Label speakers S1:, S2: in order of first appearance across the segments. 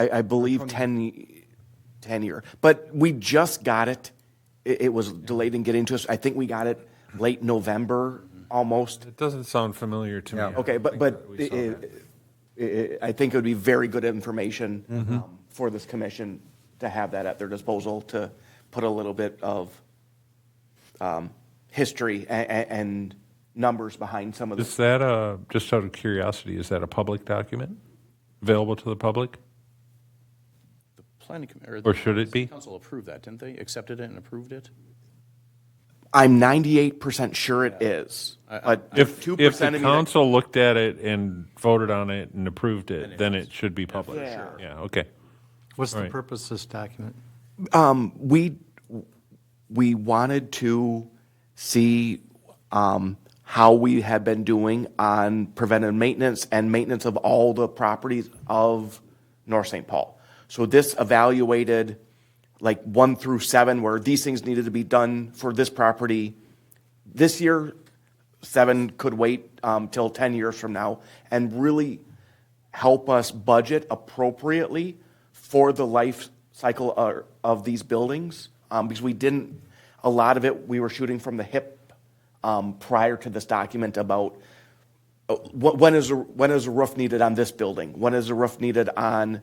S1: I, I believe 10, 10 year. But we just got it. It, it was delayed in getting to us. I think we got it late November, almost.
S2: It doesn't sound familiar to me.
S3: Yeah.
S2: Mm-hmm. I don't
S1: Okay, but,
S2: think
S1: but
S2: that we
S1: it,
S2: saw that.
S1: it, it- I think it would be very good information
S2: Mm-hmm.
S1: um, for this commission to have that at their disposal, to put a little bit of um, history and, and numbers behind some of
S2: Is
S1: this.
S2: that a, just out of curiosity, is that a public document available to the public?
S4: The planning. com-
S2: Or should it
S4: the
S2: be?
S4: Council approved that, didn't they? Accepted it and approved it?
S1: I'm 98% sure it is. But
S2: If,
S1: 2%
S2: if
S1: of
S2: the
S1: me that-
S2: council looked at it and voted on it and approved it, then it should be public.
S1: Yeah.
S2: Yeah, okay.
S5: What's the
S2: Right.
S5: purpose of this document?
S1: we we wanted to see um, how we had been doing on preventive maintenance and maintenance of all the properties of North St. Paul. So this evaluated like one through seven, where these things needed to be done for this property this year. Seven could wait um, till ten years from now, and really help us budget appropriately for the life cycle uh, of these buildings, um, because we didn't, a lot of it, we were shooting from the hip um, prior to this document about uh, wh- when is, a- when is a roof needed on this building? When is a roof needed on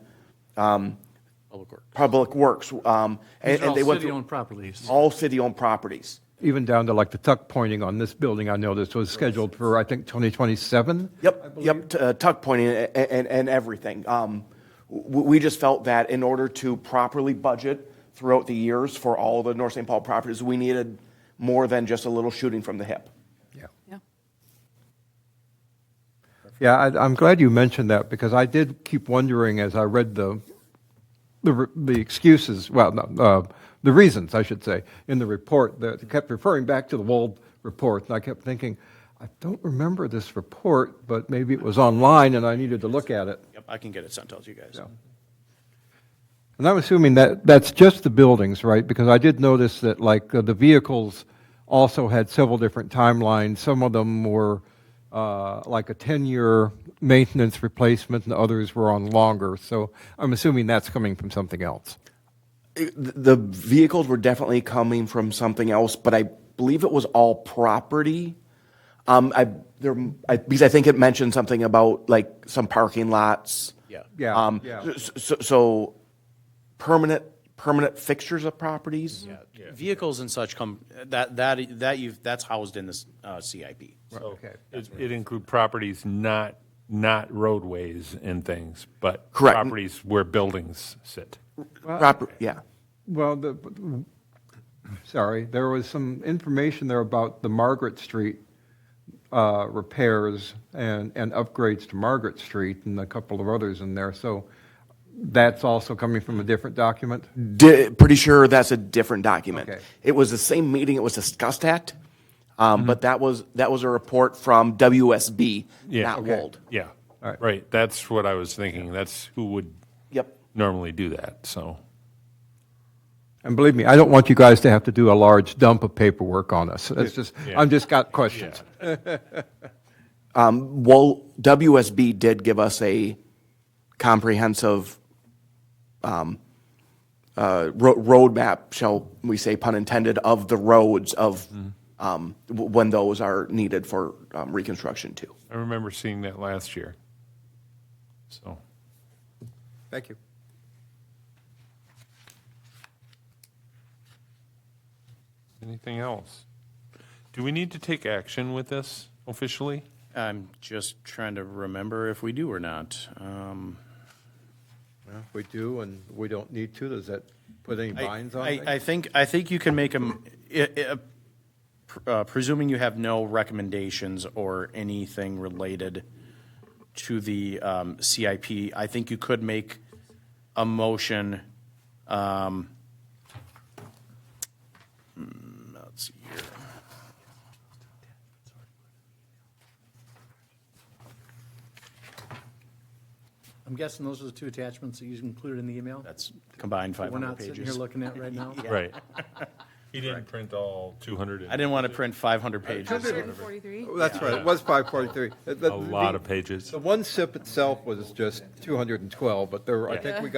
S4: Public Works.
S1: Public Works? Um, and-
S5: These are
S1: and
S5: all
S1: they went through-
S5: city-owned properties.
S1: All city-owned properties.
S3: Even down to like the tuck pointing on this building, I know this was scheduled for, I think, 2027?
S1: Yep, yep, t- uh, tuck pointing a- a- and, and everything. Um, w- we just felt that in order to properly budget throughout the years for all the North St. Paul properties, we needed more than just a little shooting from the hip.
S3: Yeah.
S6: Yeah.
S3: Yeah, I, I'm glad you mentioned that because I did keep wondering as I read the the, re- the excuses, well, no, uh, the reasons, I should say, in the report that kept referring back to the Wald report, and I kept thinking, I don't remember this report, but maybe it was online and I needed to look at it.
S4: Yep, I can get it sent out to you guys.
S3: And I'm assuming that that's just the buildings, right? Because I did notice that, like, uh, the vehicles also had several different timelines. Some of them were uh, like a 10 year maintenance replacement, and others were on longer. So I'm assuming that's coming from something else.
S1: Th- The vehicles were definitely coming from something else, but I believe it was all property. Um, I, there, I, because I think it mentioned something about like some parking lots.
S4: Yeah.
S3: Yeah.
S1: Um,
S3: yeah.
S1: s- s- So, so permanent, permanent fixtures of properties?
S4: Yeah. Vehicles and such come, that, that, that you've, that's housed in this uh, CIP.
S3: okay.
S2: It it include properties not, not roadways and things, but
S1: Correct.
S2: properties where buildings sit.
S1: Proper, yeah.
S3: Well, the, sorry, there was some information there about the Margaret Street uh, repairs and, and upgrades to Margaret Street and a couple of others in there. So that's also coming from a different document?
S1: Di- pretty sure that's a different document.
S3: Okay.
S1: It was the same meeting it was discussed at,
S2: Mm-hmm.
S1: um, but that was, that was a report from WSB,
S2: Yeah.
S1: not
S2: Okay.
S1: Wold.
S2: Yeah,
S3: All right.
S2: right, that's what I was thinking, that's who would
S1: Yep.
S2: normally do that, so.
S3: And believe me, I don't want you guys to have to do a large dump of paperwork on us. That's just,
S2: Yeah.
S3: I've just got questions.
S1: Well, WSB did give us a comprehensive um, uh, ro- roadmap, shall we say, pun intended, of the roads of
S2: Mm-hmm.
S1: um, w- when those are needed for um, reconstruction too.
S2: I remember seeing that last year. So,
S3: Thank you.
S2: anything else? Do we need to take action with this officially?
S4: I'm just trying to remember if we do or not. Um,
S3: We do and we don't need to. Does that put any
S4: I-
S3: binds on
S4: I-
S3: things?
S4: I think, I think you can make them, uh, presuming you have no recommendations or anything related to the um, CIP, I think you could make a motion. um, hmm, Let's see here.
S5: I'm guessing those are the two attachments that you included in the email?
S4: That's combined
S5: That We're
S4: 500
S5: not sitting here
S4: pages.
S5: looking at right now?
S2: Right. He didn't print all 200.
S4: I didn't want to print 500 pages.
S6: 143?
S3: Oh, That's right, it was 543.
S2: A lot of pages.
S3: The one SIP itself was just 212, but there, were- I think we got